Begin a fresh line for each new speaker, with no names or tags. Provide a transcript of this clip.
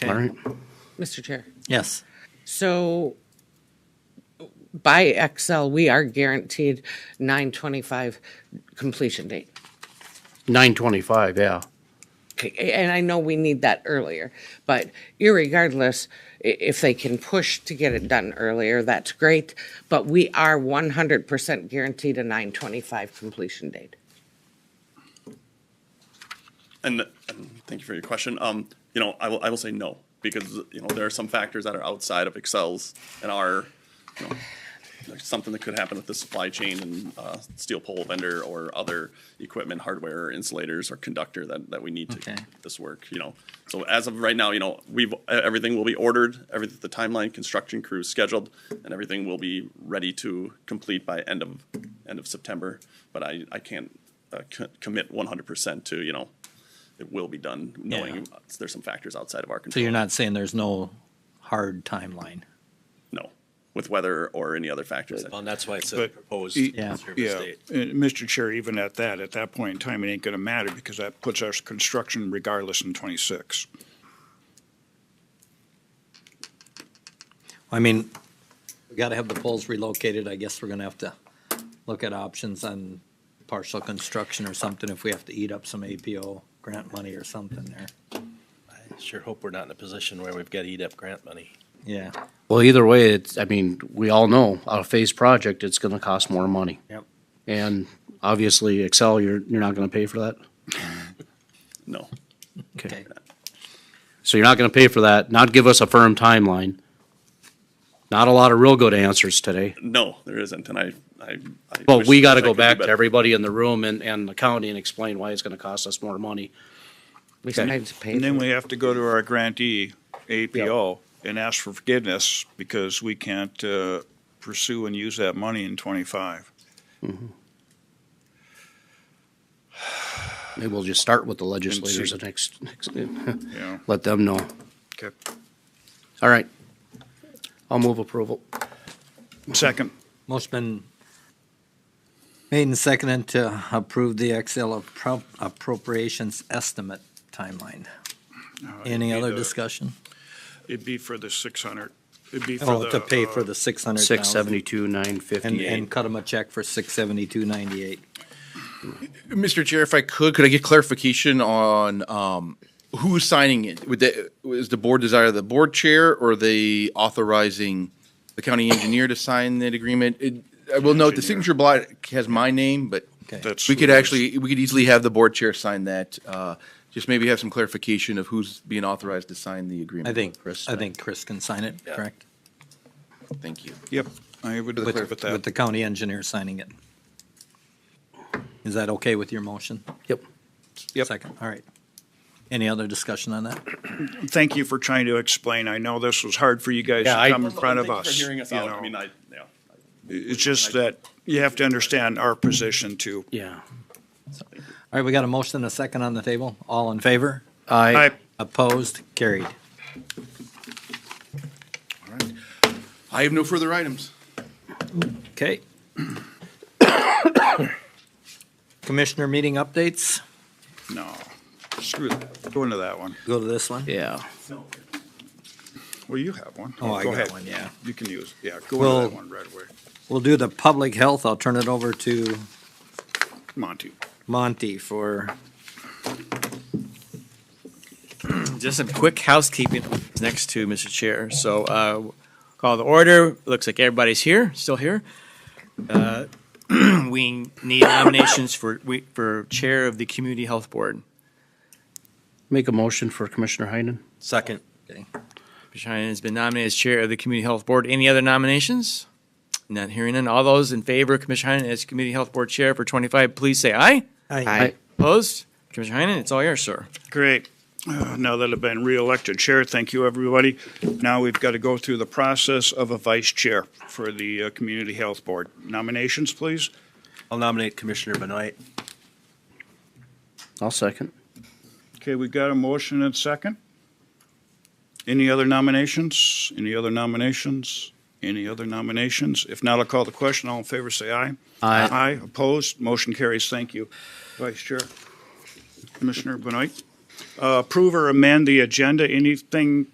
All right.
Mr. Chair.
Yes.
So by Excel, we are guaranteed nine twenty-five completion date.
Nine twenty-five, yeah.
Okay, And I know we need that earlier, but irregardless, i- if they can push to get it done earlier, that's great. But we are one hundred percent guaranteed a nine twenty-five completion date.
And, and thank you for your question. Um, you know, I will, I will say no, because, you know, there are some factors that are outside of Excel's and are, you know, like something that could happen with the supply chain and, uh, steel pole vendor or other equipment, hardware, insulators or conductor that, that we need to
Okay.
make this work, you know. So as of right now, you know, we've, e- everything will be ordered, every, the timeline, construction crew is scheduled, and everything will be ready to complete by end of, end of September. But I, I can't, uh, co- commit one hundred percent to, you know, it will be done, knowing
Yeah.
there's some factors outside of our
So
control.
you're not saying there's no hard timeline?
No, with weather or any other factors. that-
Well, and that's why it's a
But-
proposed
E-
Yeah.
service
Yeah,
date.
and Mr. Chair, even at that, at that point in time, it ain't gonna matter because that puts our construction regardless in twenty-six.
I mean, we gotta have the poles relocated. I guess we're gonna have to look at options on partial construction or something if we have to eat up some APO grant money or something there.
I Sure hope we're not in a position where we've got to eat up grant money.
Yeah.
Well, either way, it's, I mean, we all know, a phase project, it's gonna cost more money.
Yep.
And obviously Excel, you're, you're not gonna pay for that.
No,
Okay.
So you're not gonna pay for that, not give us a firm timeline. Not a lot of real good answers today,
no, there isn't, and I, I. I
but
wish-
we gotta
wish I
go
could do
back to
better.
everybody in the room and, and the county and explain why it's gonna cost us more money.
We
Okay.
sometimes pay.
And then
for-
we have to go to our grantee, APO, and ask for forgiveness because we can't, uh, pursue and use that money in twenty-five.
Maybe we'll just start with the legislators the next, next,
Yeah.
let them know.
Okay.
All right. I'll move approval.
Second,
Motion been made and seconded to approve the XL appro- appropriations estimate timeline. Any
need
other
a-
discussion?
it'd be for the six hundred, it'd be for
Oh,
the.
to pay for
uh,
the six hundred thousand.
Six seventy-two, nine
And,
fifty-eight.
and cut them a check for six seventy-two ninety-eight.
Mr. Chair, if I could, could I get clarification on um, who's signing it? Would that, is the board desire of the board chair or the authorizing the county engineer to sign that agreement? It- I will note, the signature block has my name, but
Okay,
That's.
we could
who it is.
actually, we could easily have the board chair sign that. uh, Just maybe have some clarification of who's being authorized to sign the agreement.
I think,
Chris.
I think Chris can sign it,
Yeah.
correct?
Thank you.
Yep, I would
With-
live
With,
with that.
with the county engineer signing it. Is that okay with your motion?
Yep.
Yep.
Second, all right. Any other discussion on that?
Thank you for trying to explain. I know this was hard for you guys
Yeah, I-
to come in front of
Thank you
us.
For hearing us
you
out,
know.
I mean, I, yeah.
It's just that you have to understand our position too.
Yeah.
All right, we got a motion and a second on the table. All in favor?
I,
I,
Opposed? Carried.
I have no further items.
Okay. Commissioner meeting updates?
no, screw that. Go into that one.
Go to this one.
yeah.
Well, you have one.
Oh, I
Go
got
ahead.
one, yeah.
You can use, yeah, go into
Well-
that one right away.
We'll do the public health. I'll turn it over to
Monty.
Monty for
Just some quick housekeeping next to Mr. Chair. So uh, call the order. Looks like everybody's here, still here. Uh, We need nominations for, we- for Chair of the Community Health Board.
Make a motion for Commissioner Heinen.
Second.
Okay.
Shine has been nominated as Chair of the Community Health Board. Any other nominations? None, hearing none. All those in favor of Commissioner Heinen as Community Health Board Chair for 25, please say aye.
Aye.
Opposed? Commissioner Heinen, it's all yours, sir.
Great. Uh, Now that I've been reelected chair, thank you, everybody. Now we've got to go through the process of a vice chair for the uh, Community Health Board. Nominations, please.
I'll nominate Commissioner Benoit.
I'll second.
Okay, we got a motion and second. Any other nominations? Any other nominations? Any other nominations? If not, I'll call the question. All in favor, say aye.
Aye.
Aye, opposed, motion carries. Thank you. Vice Chair. Commissioner Benoit. Uh, Approve or amend the agenda, anything